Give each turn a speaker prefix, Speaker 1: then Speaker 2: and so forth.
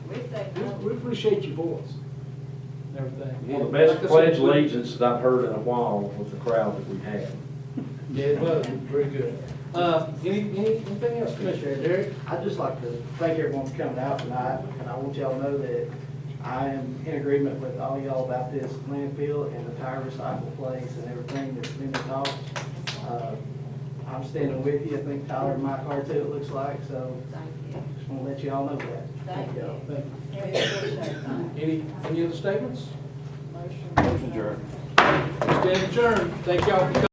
Speaker 1: we appreciate your voice and everything.
Speaker 2: One of the
Speaker 1: Like
Speaker 2: best
Speaker 1: I said,
Speaker 2: pledge
Speaker 1: we-
Speaker 2: allegiance that I've heard in a while with the crowd that we had.
Speaker 1: Yeah, it was, very good. Uh, any, any, anything else, Commissioner?
Speaker 3: Commissioner Derrick, I'd just like to thank everyone for coming out tonight, and I want y'all to know that I am in agreement with all y'all about this landfill and the tire recycle place and everything that's been talked. Uh, I'm standing with you, I think Tyler and Mike are too, it looks like, so
Speaker 4: Thank you.
Speaker 3: just want to let y'all know that.
Speaker 4: Thank you.
Speaker 1: Thank you.
Speaker 4: We appreciate that.
Speaker 1: Any, any other statements?
Speaker 4: Motion. Motion adjourned.
Speaker 1: Stand adjourned. Thank y'all for coming.